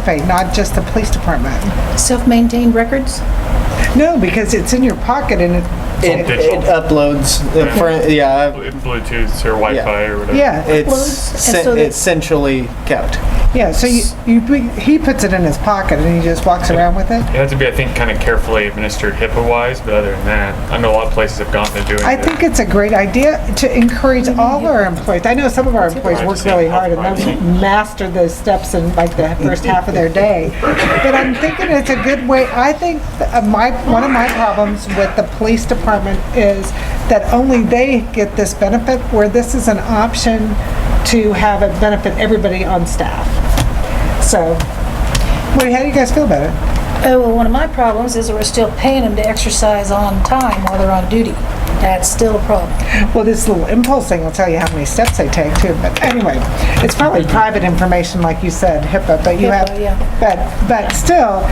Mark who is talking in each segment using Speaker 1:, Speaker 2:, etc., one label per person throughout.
Speaker 1: participate, not just the police department.
Speaker 2: Self-maintained records?
Speaker 1: No, because it's in your pocket and it,
Speaker 3: It,
Speaker 4: digital.
Speaker 3: it uploads the front, yeah,
Speaker 4: Bluetooth or Wi-Fi or whatever.
Speaker 1: yeah.
Speaker 3: it's
Speaker 2: Uploads,
Speaker 3: sen-
Speaker 2: and so that-
Speaker 3: it's centrally kept.
Speaker 1: Yeah, so you, you, he puts it in his pocket and he just walks around with it?
Speaker 4: It has to be, I think, kind of carefully administered HIPAA-wise, but other than that, I know a lot of places have gotten to doing
Speaker 1: I
Speaker 4: it.
Speaker 1: think it's a great idea to encourage all our employees. I know some of our employees work really hard and they master those steps in like the first half of their day. But I'm thinking it's a good way, I think uh, my, one of my problems with the police department is that only they get this benefit, where this is an option to have it benefit everybody on staff. So, wait, how do you guys feel about it?
Speaker 2: Oh, well, one of my problems is that we're still paying them to exercise on time while they're on duty. That's still a problem.
Speaker 1: Well, this little impulse thing will tell you how many steps they take too, but anyway, it's probably private information, like you said, HIPAA, but you have,
Speaker 2: HIPAA, yeah.
Speaker 1: but, but still,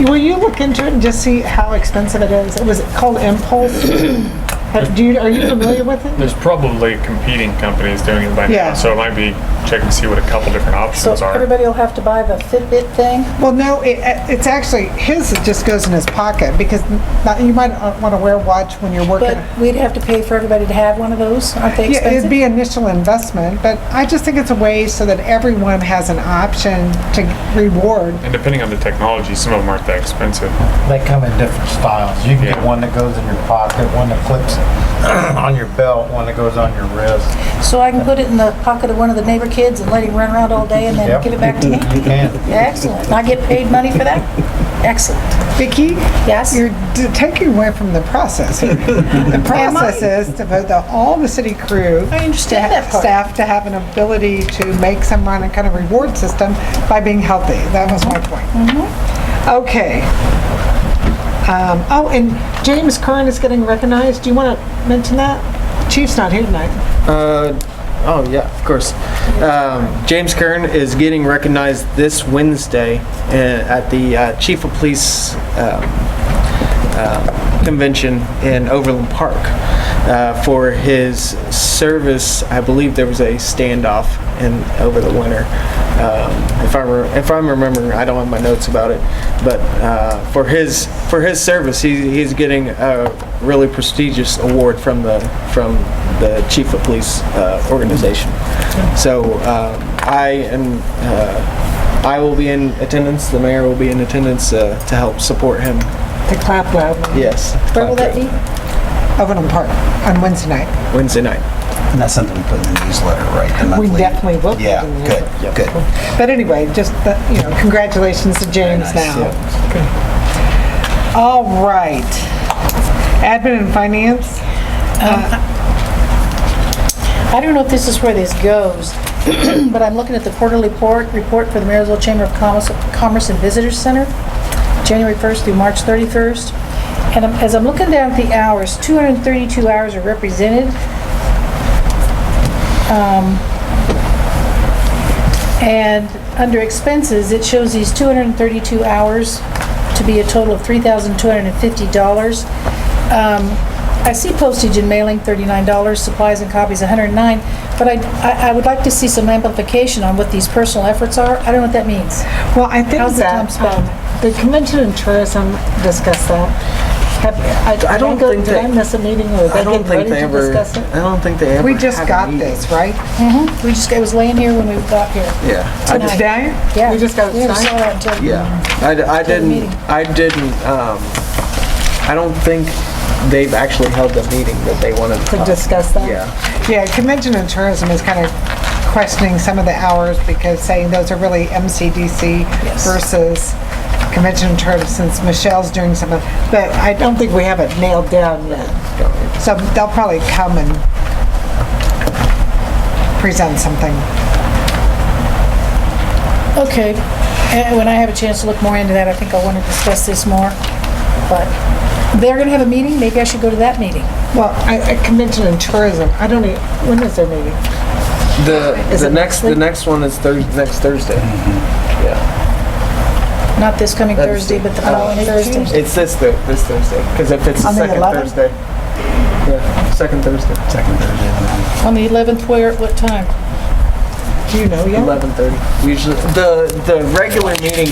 Speaker 1: you- will you look into it and just see how expensive it is? Was it called Impulse? Have- Do you, are you familiar with it?
Speaker 4: There's probably competing companies doing it by
Speaker 1: Yeah.
Speaker 4: now, so it might be checking to see what a couple different options are.
Speaker 2: will have to buy the Fitbit thing?
Speaker 1: Well, no, it, it's actually, his just goes in his pocket, because not- you might want to wear a watch when you're working.
Speaker 2: But we'd have to pay for everybody to have one of those, aren't they
Speaker 1: Yeah, it'd
Speaker 2: expensive?
Speaker 1: be initial investment, but I just think it's a way so that everyone has an option to reward
Speaker 4: And depending on the technology, some of them aren't that expensive.
Speaker 5: They come in different styles. You can
Speaker 4: Yeah.
Speaker 5: get one that goes in your pocket, one that clips on your belt, one that goes on your wrist.
Speaker 2: So I can put it in the pocket of one of the neighbor kids and let him run around all day and then
Speaker 5: Yep.
Speaker 2: give it back to me?
Speaker 5: You can.
Speaker 2: Excellent. I get paid money for that? Excellent.
Speaker 1: Vicki?
Speaker 2: Yes?
Speaker 1: You're d- taking away from the process. here. The process is to vote the, all the city crew,
Speaker 2: I understand that part.
Speaker 1: staff to have an ability to make some kind of- kind of reward system by being healthy. That was my point.
Speaker 2: Mm-hmm.
Speaker 1: Okay. Um, Oh, and James Curran is getting recognized. Do you want to mention that? Chief's not here tonight.
Speaker 3: Uh, oh yeah, of course. Um, James Kern is getting recognized this Wednesday uh, at the uh, Chief of Police um, um, convention in Overland Park uh, for his service. I believe there was a standoff in over the winter. Um, if I re- if I'm remembering, I don't have my notes about it, but uh, for his for his service, he, he's getting a really prestigious award from the from the chief of police uh, organization. So um, I am. Uh, I will be in attendance. The mayor will be in attendance uh, to help support him
Speaker 1: To clap loud.
Speaker 3: Yes.
Speaker 2: Where will that be?
Speaker 1: Overland Park on Wednesday night.
Speaker 3: Wednesday night.
Speaker 6: And that's something we put in the newsletter, right? The
Speaker 1: We
Speaker 6: monthly-
Speaker 1: definitely will. put it
Speaker 6: Yeah,
Speaker 1: in the newsletter.
Speaker 6: good, good.
Speaker 1: But anyway, just, the- you know, congratulations to James
Speaker 6: nice,
Speaker 1: now. All right. Admin and finance?
Speaker 2: I don't know if this is where this goes, but I'm looking at the quarterly report, report for the Marysville Chamber of Commerce- Commerce and Visitors Center, January 1st through March 31st. And I'm- as I'm looking down at the hours, 232 hours are represented. Um, And under expenses, it shows these 232 hours to be a total of $3,250. Um, I see postage and mailing, $39, supplies and copies, $109, but I- I, I would like to see some amplification on what these personal efforts are. I don't know what that means.
Speaker 1: Well, I think
Speaker 2: How's the time
Speaker 1: that,
Speaker 2: spent?
Speaker 1: um, the convention and tourism discussed that. Have- I
Speaker 3: I don't
Speaker 1: go-
Speaker 3: think
Speaker 1: Did I
Speaker 3: they-
Speaker 1: miss a meeting or
Speaker 3: I
Speaker 1: they
Speaker 3: don't
Speaker 1: get
Speaker 3: think
Speaker 1: ready
Speaker 3: they
Speaker 1: to
Speaker 3: ever.
Speaker 1: discuss it?
Speaker 3: I don't think they ever.
Speaker 1: We just
Speaker 3: have a
Speaker 1: got
Speaker 3: meeting.
Speaker 1: this, right?
Speaker 2: We just, it was laying here when we got here.
Speaker 3: Yeah.
Speaker 1: Oh,
Speaker 2: Tonight.
Speaker 1: Today?
Speaker 2: Yeah.
Speaker 1: We just got
Speaker 2: We
Speaker 1: it
Speaker 2: never saw
Speaker 1: signed?
Speaker 2: that until-
Speaker 3: Yeah. I, d- I didn't.
Speaker 2: meeting.
Speaker 3: I didn't. Um, I don't think they've actually held the meeting that they wanted to.
Speaker 1: To
Speaker 3: talk.
Speaker 1: discuss that?
Speaker 3: Yeah.
Speaker 1: Yeah, convention and tourism is kind of questioning some of the hours because saying those are really MCDC
Speaker 2: Yes.
Speaker 1: versus convention and tourism since Michelle's doing some of, but I don't think we have it nailed down yet. So they'll probably come and present something.
Speaker 2: Okay, and when I have a chance to look more into that, I think I want to discuss this more, but they're gonna have a meeting, maybe I should go to that meeting.
Speaker 1: Well, I, I convention and tourism, I don't even, when is their meeting?
Speaker 3: The
Speaker 1: Is
Speaker 3: the
Speaker 1: it
Speaker 3: next the
Speaker 1: Wednesday?
Speaker 3: next one is Thursday next Thursday. Yeah.
Speaker 2: Not this coming
Speaker 3: That's-
Speaker 2: Thursday, but the
Speaker 3: I don't
Speaker 2: following
Speaker 3: know.
Speaker 2: Thursday.
Speaker 3: Uh, It's this th- this Thursday because if it's the
Speaker 1: On the
Speaker 3: second
Speaker 1: 11th?
Speaker 3: Thursday. Yeah. Second Thursday.
Speaker 6: Second Thursday of the month.
Speaker 2: On the 11th, where, at what time?
Speaker 1: Do you know yet?
Speaker 3: Eleven thirty. Usually the the regular meeting